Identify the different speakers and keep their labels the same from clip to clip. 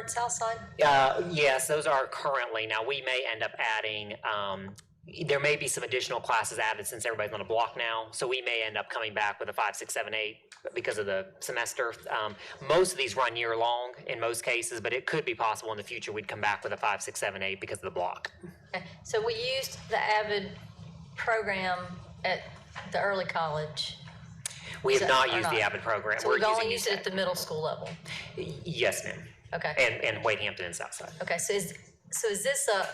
Speaker 1: and south side?
Speaker 2: Uh, yes, those are currently. Now, we may end up adding, um, there may be some additional classes added since everybody's on a block now. So we may end up coming back with a five, six, seven, eight because of the semester. Um, most of these run year long in most cases, but it could be possible in the future we'd come back with a five, six, seven, eight because of the block.
Speaker 1: Okay. So we used the Avid program at the early college.
Speaker 2: We have
Speaker 1: So-
Speaker 2: not
Speaker 1: or
Speaker 2: used the
Speaker 1: not.
Speaker 2: Avid program.
Speaker 1: So
Speaker 2: We're
Speaker 1: we've only
Speaker 2: using
Speaker 1: used it at the middle school level.
Speaker 2: USAC. Yes, ma'am.
Speaker 1: Okay.
Speaker 2: And, and Wade Hampton and Southside.
Speaker 1: Okay, so is, so is this a,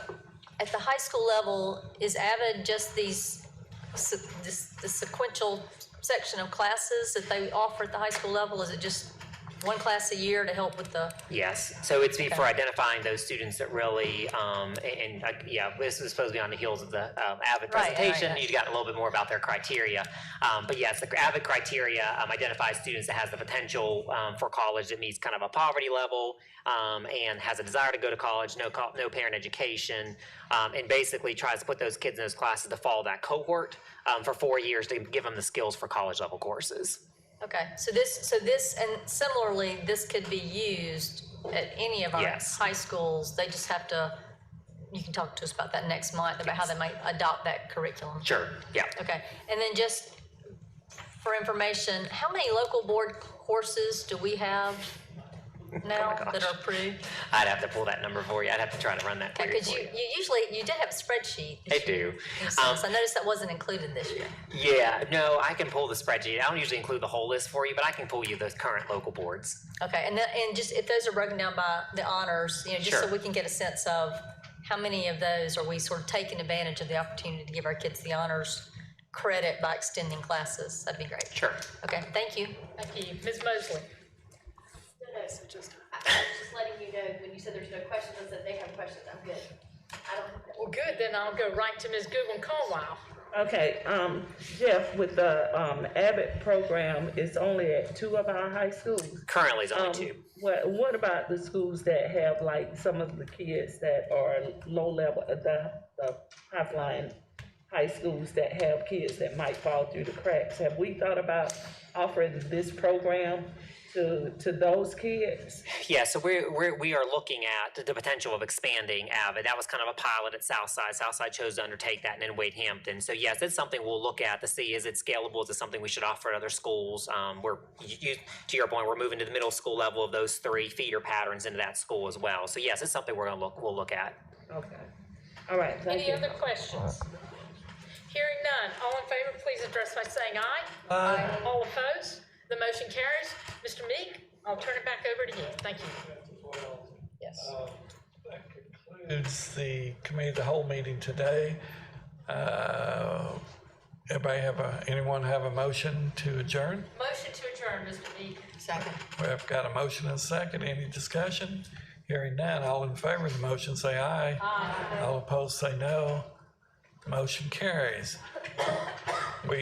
Speaker 1: at the high school level, is Avid just these, se- this, the sequential section of classes that they offer at the high school level? Is it just one class a year to help with the,
Speaker 2: Yes, so it's be- for identifying those students that really, um, a- and, uh, yeah, this is supposed to be on the heels of the, um, Avid
Speaker 1: Right, right,
Speaker 2: presentation.
Speaker 1: right.
Speaker 2: You got a little bit more about their criteria. Um, but yes, the Avid criteria, um, identifies students that has the potential, um, for college that meets kind of a poverty level, um, and has a desire to go to college, no co- no parent education, um, and basically tries to put those kids in those classes to follow that cohort, um, for four years to give them the skills for college level courses.
Speaker 1: okay, so this, so this, and similarly, this could be used at any of our
Speaker 2: Yes.
Speaker 1: high schools. They just have to, you can talk to us about that next month, about how they might adopt that curriculum.
Speaker 2: Sure, yeah.
Speaker 1: Okay, and then just for information, how many local board courses do we have now that
Speaker 2: Oh gosh.
Speaker 1: are approved?
Speaker 2: I'd have to pull that number for you. I'd have to try to run that query
Speaker 1: Because
Speaker 2: for
Speaker 1: you,
Speaker 2: you.
Speaker 1: you usually, you did have a spreadsheet.
Speaker 2: I
Speaker 1: that you
Speaker 2: do.
Speaker 1: used,
Speaker 2: Um,
Speaker 1: So I noticed that wasn't included this year.
Speaker 2: yeah, no, I can pull the spreadsheet. I don't usually include the whole list for you, but I can pull you the current local boards.
Speaker 1: Okay, and then, and just if those are broken down by the honors, you know, just so
Speaker 2: Sure.
Speaker 1: we can get a sense of how many of those are we sort of taking advantage of the opportunity to give our kids the honors credit by extending classes, that'd be great.
Speaker 2: Sure.
Speaker 1: Okay, thank you.
Speaker 3: Thank you. Ms. Mosley?
Speaker 4: No, no, I I was just letting you know, when you said there's no questions, I said they have questions, I'm good. I don't have
Speaker 3: Well, good, then I'll go right to Ms. Goodwin Carlisle.
Speaker 5: Okay, um, Jeff, with the, um, Abbott program, it's only at two of our high schools.
Speaker 2: Currently, it's only
Speaker 5: Um,
Speaker 2: two.
Speaker 5: What, what about the schools that have like some of the kids that are low level, uh, the, the high flying high schools that have kids that might fall through the cracks? Have we thought about offering this program to, to those kids?
Speaker 2: Yeah, so we're, we're, we are looking at the potential of expanding Avid. That was kind of a pilot at Southside. Southside chose to undertake that and then Wade Hampton. So yes, it's something we'll look at to see, is it scalable? Is it something we should offer at other schools? Um, we're, you, to your point, we're moving to the middle school level of those three feeder patterns into that school as well. So yes, it's something we're gonna look, we'll look at.
Speaker 5: Okay, all right, thank
Speaker 3: Any
Speaker 5: you.
Speaker 3: other questions? Hearing none, all in favor, please address by saying aye. Aye. All opposed, the motion carries. Mr. Meek, I'll turn it back over to you. Thank you. Yes.
Speaker 6: That concludes the committee, of the whole meeting today. Uh, Everybody have a, anyone have a motion to adjourn?
Speaker 3: Motion to adjourn, Mr. Meek.
Speaker 1: Second.
Speaker 6: We've got a motion and a second. Any discussion? Hearing none. All in favor of the motion, say aye. Aye. All opposed, say no. Motion carries.